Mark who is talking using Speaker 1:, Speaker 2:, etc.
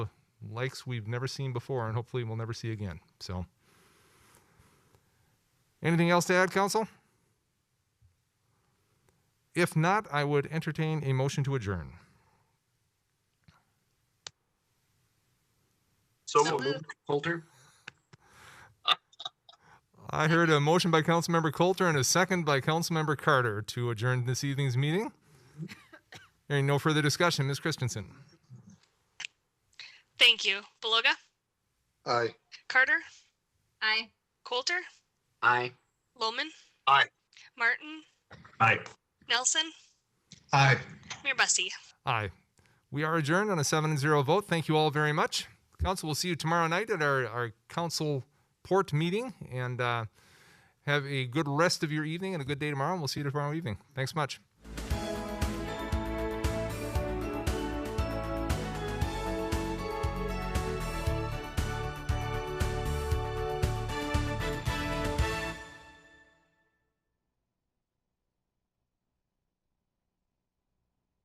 Speaker 1: likes we've never seen before and hopefully we'll never see again. So, anything else to add, Council? If not, I would entertain a motion to adjourn.
Speaker 2: So
Speaker 3: So
Speaker 2: moved. Coulter?
Speaker 1: I heard a motion by Councilmember Coulter and a second by Councilmember Carter to adjourn this evening's meeting. Hearing no further discussion, Ms. Christensen.
Speaker 3: Thank you. Beloga,
Speaker 2: Aye.
Speaker 3: Carter,
Speaker 4: Aye.
Speaker 3: Coulter,
Speaker 2: Aye.
Speaker 3: Loman.
Speaker 2: Aye.
Speaker 3: Martin,
Speaker 2: Aye.
Speaker 3: Nelson,
Speaker 2: Aye.
Speaker 3: Mayor Bussey.
Speaker 1: Aye. We are adjourned on a seven and zero vote. Thank you all very much. Council will see you tomorrow night at our, our council port meeting and uh, have a good rest of your evening and a good day tomorrow. And we'll see you tomorrow evening. Thanks much.